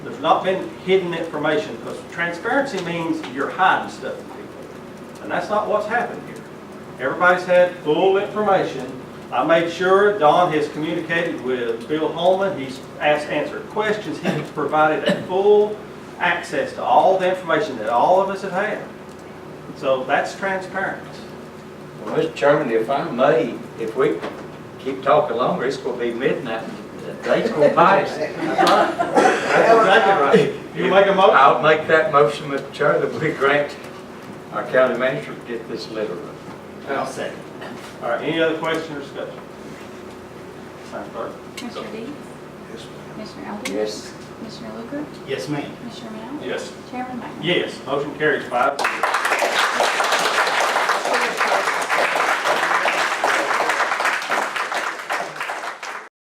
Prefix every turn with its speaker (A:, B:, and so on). A: not been hidden information, because transparency means you're hiding stuff from people. And that's not what's happened here. Everybody's had full information. I made sure Don has communicated with Bill Holman, he's asked, answered questions, he's provided a full access to all the information that all of us have had. So that's transparency.
B: Well, Mr. Chairman, if I may, if we keep talking longer, it's gonna be midnight, and the date's gonna pass.
A: That's exactly right. You make a motion?
B: I'll make that motion, Mr. Chair, that we grant our county manager to get this letter.
C: I'll second.
A: All right, any other question or discussion? Madam Clerk?
D: Commissioner Deeds?
C: Yes, ma'am.
D: Commissioner Elder?
B: Yes.
D: Commissioner Luker?
C: Yes, ma'am.
D: Commissioner Mel?
A: Yes.
D: Chairman Mike?
A: Yes, motion carries five zero.